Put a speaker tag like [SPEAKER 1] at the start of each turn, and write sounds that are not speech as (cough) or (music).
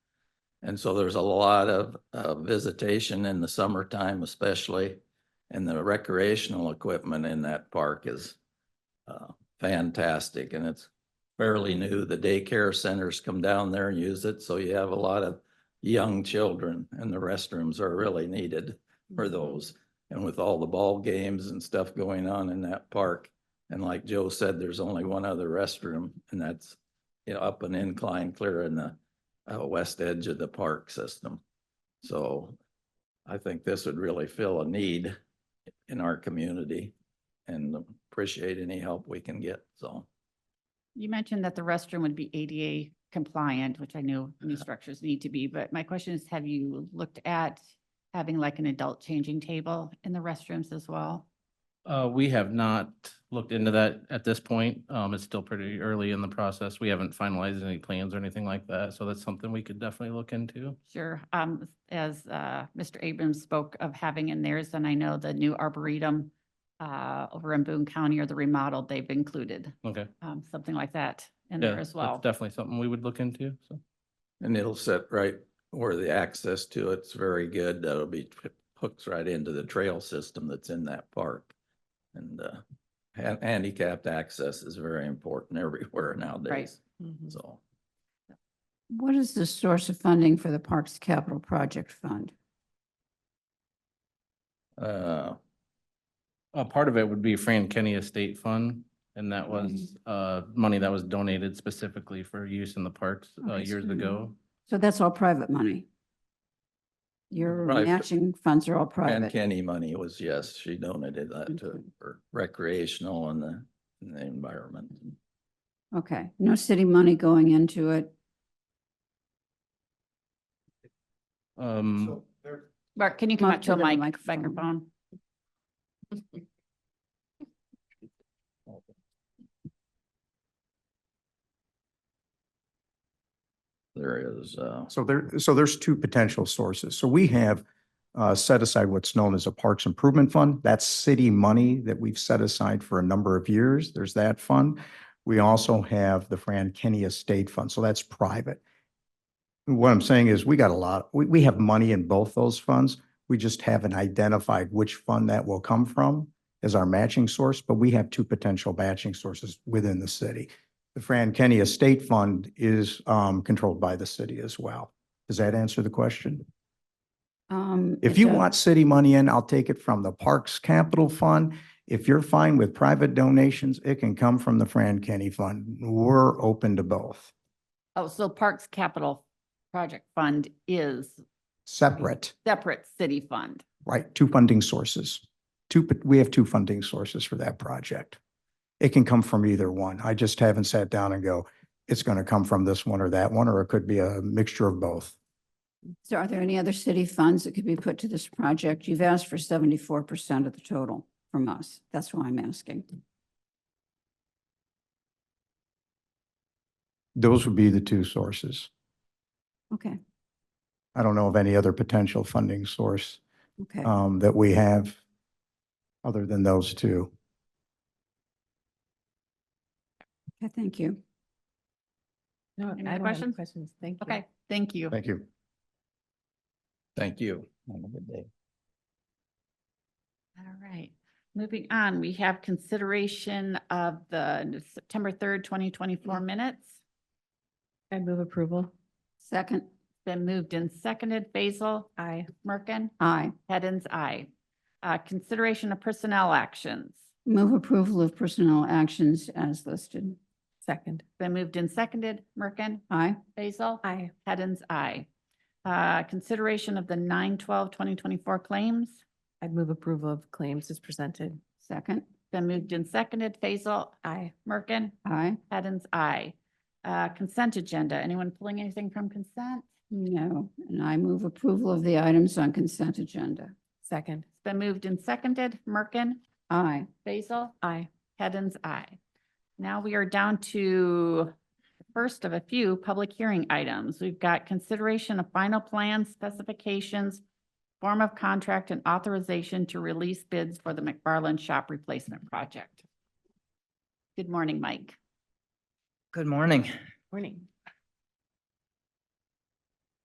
[SPEAKER 1] And so there's a lot of, uh, visitation in the summertime especially. And the recreational equipment in that park is, uh, fantastic and it's fairly new. The daycare centers come down there and use it, so you have a lot of young children and the restrooms are really needed for those. And with all the ball games and stuff going on in that park, and like Joe said, there's only one other restroom and that's, you know, up an incline clear in the uh, west edge of the park system. So I think this would really fill a need in our community and appreciate any help we can get, so.
[SPEAKER 2] You mentioned that the restroom would be ADA compliant, which I know new
[SPEAKER 3] Uh-huh.
[SPEAKER 2] structures need to be, but my question is, have you looked at having like an adult changing table in the restrooms as well?
[SPEAKER 3] Uh, we have not looked into that at this point. Um, it's still pretty early in the process. We haven't finalized any plans or anything like that. So that's something we could definitely look into.
[SPEAKER 2] Sure, um, as, uh, Mr. Abrams spoke of having in theirs, and I know the new arboretum uh, over in Boone County or the remodeled, they've included,
[SPEAKER 3] Okay.
[SPEAKER 2] um, something like that in
[SPEAKER 3] Yeah,
[SPEAKER 2] there as
[SPEAKER 3] that's
[SPEAKER 2] well.
[SPEAKER 3] Definitely something we would look into. So,
[SPEAKER 1] And it'll sit right where the access to it's very good. That'll be it hooks right into the trail system that's in that park. And uh ha- handicapped access is very important (laughs) everywhere nowadays, so.
[SPEAKER 4] What is the source of funding for the Parks Capital Project Fund?
[SPEAKER 1] Uh,
[SPEAKER 3] uh, part of it would be Fran Kenny Estate Fund. And that was, uh, money that was donated specifically for use in the parks, uh,
[SPEAKER 4] Okay, so
[SPEAKER 3] years
[SPEAKER 4] we
[SPEAKER 3] ago.
[SPEAKER 4] So that's all private money? Your
[SPEAKER 1] Private.
[SPEAKER 4] matching funds are all
[SPEAKER 1] and
[SPEAKER 4] private?
[SPEAKER 1] Kenny money was, yes, she donated that to
[SPEAKER 4] Okay.
[SPEAKER 1] for recreational and the and the environment.
[SPEAKER 4] Okay, no city money going into it?
[SPEAKER 5] Mm-hmm.
[SPEAKER 3] Um,
[SPEAKER 2] Mark, can you come
[SPEAKER 4] Mark,
[SPEAKER 2] up to a
[SPEAKER 4] you're the
[SPEAKER 2] mic,
[SPEAKER 4] microphone.
[SPEAKER 2] microphone?
[SPEAKER 1] There is uh
[SPEAKER 5] So there, so there's two potential sources. So we have uh, set aside what's known as a Parks Improvement Fund. That's city money that we've set aside for a number of years. There's that fund. We also have the Fran Kenny Estate Fund, so that's private. What I'm saying is we got a lot, we, we have money in both those funds. We just haven't identified which fund that will come from as our matching source, but we have two potential matching sources within the city. The Fran Kenny Estate Fund is um, controlled by the city as well. Does that answer the question?
[SPEAKER 4] Um,
[SPEAKER 5] If
[SPEAKER 4] it's
[SPEAKER 5] you
[SPEAKER 4] a-
[SPEAKER 5] want city money in, I'll take it from the Parks Capital Fund. If you're fine with private donations, it can come from the Fran Kenny Fund. We're open to both,
[SPEAKER 2] Oh, so Parks Capital Project Fund is
[SPEAKER 5] separate,
[SPEAKER 2] separate city fund.
[SPEAKER 5] right? Two funding sources. Two, we have two funding sources for that project. It can come from either one. I just haven't sat down and go, it's going to come from this one or that one, or it could be a mixture of both.
[SPEAKER 4] So are there any other city funds that could be put to this project? You've asked for seventy-four percent of the total from us. That's why I'm asking.
[SPEAKER 5] Those would be the two sources.
[SPEAKER 4] Okay,
[SPEAKER 5] I don't know of any other potential funding source
[SPEAKER 4] okay.
[SPEAKER 5] um, that we have other than those two.
[SPEAKER 4] Okay, thank you.
[SPEAKER 6] No, I
[SPEAKER 2] Any other
[SPEAKER 6] don't have any
[SPEAKER 2] questions?
[SPEAKER 6] questions. Thank you.
[SPEAKER 2] Okay, thank you.
[SPEAKER 5] Thank you.
[SPEAKER 1] Thank you. Have a good day.
[SPEAKER 2] All right, moving on, we have consideration of the September third, twenty twenty-four minutes.
[SPEAKER 6] I move approval.
[SPEAKER 4] Second,
[SPEAKER 2] Been moved and seconded, Basil,
[SPEAKER 6] Aye.
[SPEAKER 2] Merkin,
[SPEAKER 4] aye.
[SPEAKER 2] Hens, aye. Uh, consideration of personnel actions.
[SPEAKER 4] Move approval of personnel actions as listed.
[SPEAKER 6] Second.
[SPEAKER 2] Been moved and seconded, Merkin,
[SPEAKER 4] Aye.
[SPEAKER 2] Basil,
[SPEAKER 6] Aye.
[SPEAKER 2] Hens, aye. Uh, consideration of the 9-12-2024 claims.
[SPEAKER 6] I'd move approval of claims as presented.
[SPEAKER 4] Second,
[SPEAKER 2] Been moved and seconded, Basil,
[SPEAKER 6] Aye.
[SPEAKER 2] Merkin,
[SPEAKER 4] aye.
[SPEAKER 2] Hens, aye. Uh, consent agenda. Anyone pulling anything from consent?
[SPEAKER 4] No, and I move approval of the items on consent agenda.
[SPEAKER 6] Second.
[SPEAKER 2] It's been moved and seconded. Merkin,
[SPEAKER 4] Aye.
[SPEAKER 2] Basil,
[SPEAKER 6] Aye.
[SPEAKER 2] Hens, aye. Now we are down to the first of a few public hearing items. We've got consideration of final plan specifications, form of contract and authorization to release bids for the McFarland Shop Replacement Project. Good morning, Mike.
[SPEAKER 7] Good morning.
[SPEAKER 6] Morning.